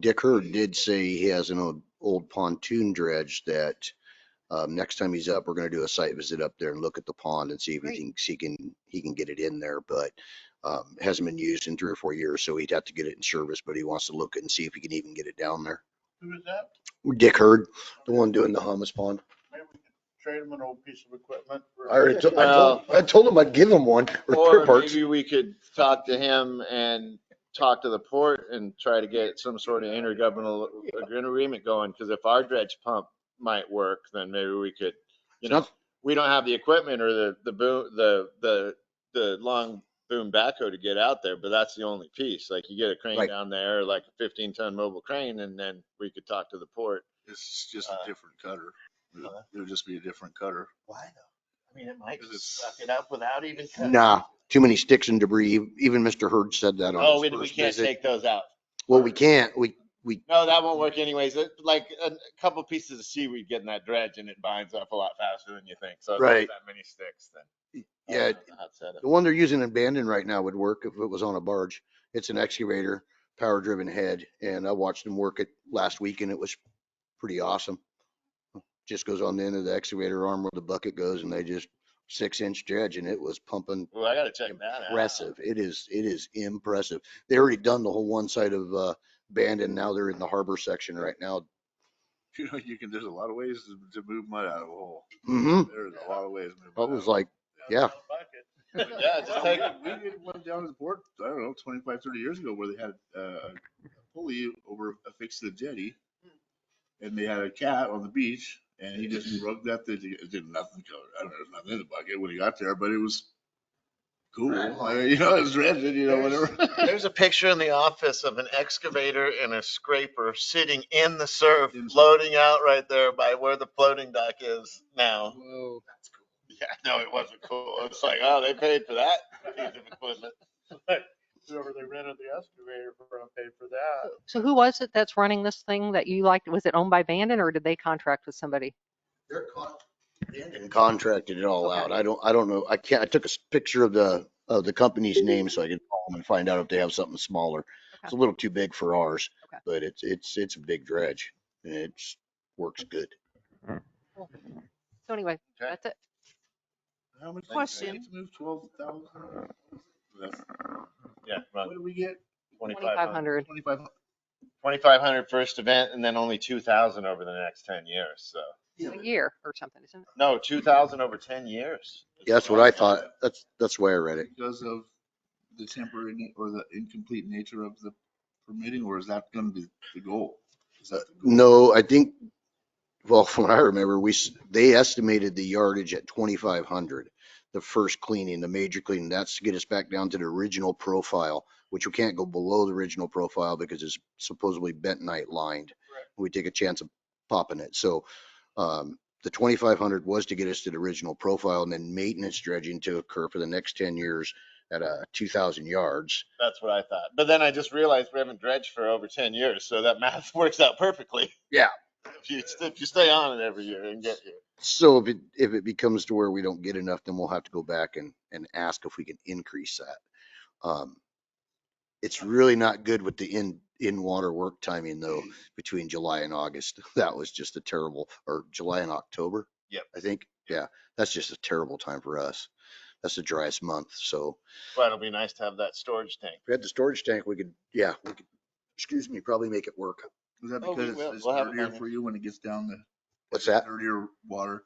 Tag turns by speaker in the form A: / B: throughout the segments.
A: Dick Hurd did say he has an old, old pontoon dredge that, um, next time he's up, we're gonna do a site visit up there and look at the pond and see if he
B: Great.
A: thinks he can, he can get it in there, but, um, it hasn't been used in three or four years, so he'd have to get it in service, but he wants to look and see if he can even get it down there.
C: Who is that?
A: Dick Hurd, the one doing the hummus pond.
C: Maybe we could trade him an old piece of equipment. for-
A: I already, to- I told, I told him I'd give him one or
D: Or
A: two parts.
D: maybe we could talk to him and talk to the port and try to get some sort of intergovernmental agreement going, because if our dredge pump might work, then maybe we could, you know,
A: Not-
D: we don't have the equipment or the, the boom, the, the, the long boom backhoe to get out there, but that's the only piece. Like you get a crane
A: Right.
D: down there, like a fifteen ton mobile crane, and then we could talk to the port.
E: It's just a
C: Uh,
E: different cutter. It'll
C: uh,
E: it'll just be a different cutter.
C: Why though? I mean, it might
E: 'Cause it's-
C: suck it up without even. cutting.
A: Nah, too many sticks and debris. Even Mr. Hurd said that
D: Oh,
A: on
D: we,
A: his
D: we
A: first
D: can't
A: visit.
D: take those out.
A: Well, we can't, we,
D: No, that won't work anyways. It- Like a a couple pieces of seaweed get in that dredge and it binds up a lot faster than you think. So if there's
A: Right.
D: that many sticks then. I
A: yeah,
D: don't know how to set it.
A: the one they're using in Bandon right now would work if it was on a barge. It's an excavator, power driven head, and I watched them work it last week and it was pretty awesome. Just goes on the end of the excavator arm where the bucket goes and they just six inch dredge and it was pumping
D: Well, I gotta check that out.
A: impressive. It is, it is impressive. They already done the whole one side of uh Bandon. Now they're in the harbor section right now.
E: You know, you can, there's a lot of ways to- to move mud out of a hole.
A: hmm
E: There's a lot of ways. to move
A: I
E: mud
A: was
E: out
A: like, yeah,
C: Bucket.
D: Yeah, just take,
E: of a hole. We did one down at the port, I don't know, 25, 30 years ago where they had uh, a pulley over affixed to the jetty.
C: Hmm.
E: And they had a cat on the beach and he just rubbed that, thing together. it did nothing. to it. I don't know, there's nothing in the bucket when he got there, but it was cool. I mean, You know, it was rented, you know, whatever.
D: there's a picture in the office of an excavator and a scraper sitting in the surf,
E: In-
D: floating out right there by where the floating dock is now.
E: Whoa. That's cool.
D: Yeah, no, it wasn't cool. It's like, oh, they paid for that piece of equipment.
C: Whoever they rented the excavator from paid for that.
B: So who was it that's running this thing that you liked? Was it owned by Bandon or did they contract with somebody?
A: They're con- Bandon contracted it all
B: Okay.
A: out. I don't, I don't know. I can't, I took a s- picture of the, of the company's name so I could call them and find out if they have something smaller. It's a little too big for ours,
B: Okay.
A: but it's, it's, it's a big dredge and it's, works good.
B: So anyway,
D: Okay.
B: that's it.
E: How much? did we
F: Question.
E: get to Move twelve thousand?
D: Yeah,
E: What do we get?
B: Twenty-five hundred.
E: Twenty-five?
D: Twenty-five hundred first event and then only two thousand over the next ten years, so.
B: a year or something, isn't it?
D: No, two thousand over ten years.
A: Yeah, That's what I thought. That's, that's why I read it.
E: Because of the temporary na- or the incomplete nature of the permitting, or is that gonna be the goal? Is that the goal?
A: No, I think, well, from what I remember, we, s- they estimated the yardage at twenty-five hundred. The first cleaning, the major cleaning, that's to get us back down to the original profile, which we can't go below the original profile because it's supposedly bentonite lined. We take a chance of popping it. So, um, the twenty-five hundred was to get us to the original profile and then maintenance dredging to occur for the next ten years at, uh, two thousand yards.
D: That's what I thought. But then I just realized we haven't dredged for over ten years, so that math works out perfectly.
A: Yeah.
D: If you, if you stay on it every year and get here.
A: So if it, if it becomes to where we don't get enough, then we'll have to go back and, and ask if we can increase that. Um, It's really not good with the in, in-water work timing though, between July and August. That was just a terrible, or July and October.
D: Yep.
A: I think, yeah, that's just a terrible time for us. That's the driest month, so
D: But it'll be nice to have that storage tank.
A: if we had the storage tank, we could, yeah, we could, excuse me, probably make it work.
E: Is that
D: Oh, we
E: because
D: will.
E: it's- it's
D: We'll have it by
E: dirtier
D: then.
E: for you when it gets down the?
A: What's that?
E: Dirtier water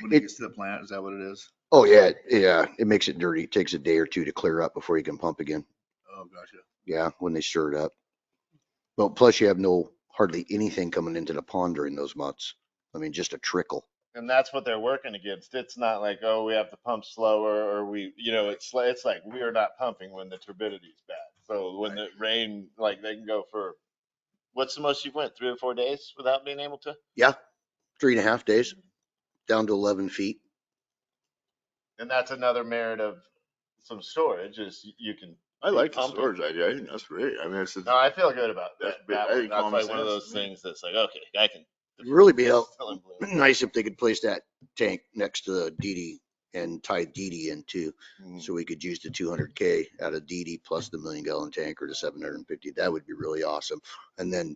E: when
A: It-
E: it gets to the plant, is that what it is?
A: Oh, yeah, yeah, it makes it dirty. It Takes a day or two to clear up before you can pump again.
E: Oh, gotcha.
A: Yeah, when they stir it up. Well, plus you have no, hardly anything coming into the pond during those months. I mean, just a trickle.
D: And that's what they're working against. It's not like, oh, we have to pump slower or we, you know, it's, li- it's like we are not pumping when the turbidity is bad. So when the rain, like they can go for, what's the most you went, three or four days without being able to?
A: Three and a half days, down to 11 feet.
D: And that's another merit of some storage is y- you can.
E: I like the
D: pump it.
E: storage idea, I think that's great, I mean, it's,
D: No, I feel good about that.
E: That's big-
D: That
E: I
D: one.
E: think
D: That's
E: common
D: like one of
E: sense.
D: those things that's like, okay, I can.
A: Really be out-
D: Still in blue.
A: Nice if they could place that tank next to the DD and tied DD in too.
E: Mm.
D: Mm.
A: So we could use the two hundred K out of DD plus the million gallon tanker to seven hundred and fifty. That would be really awesome. And then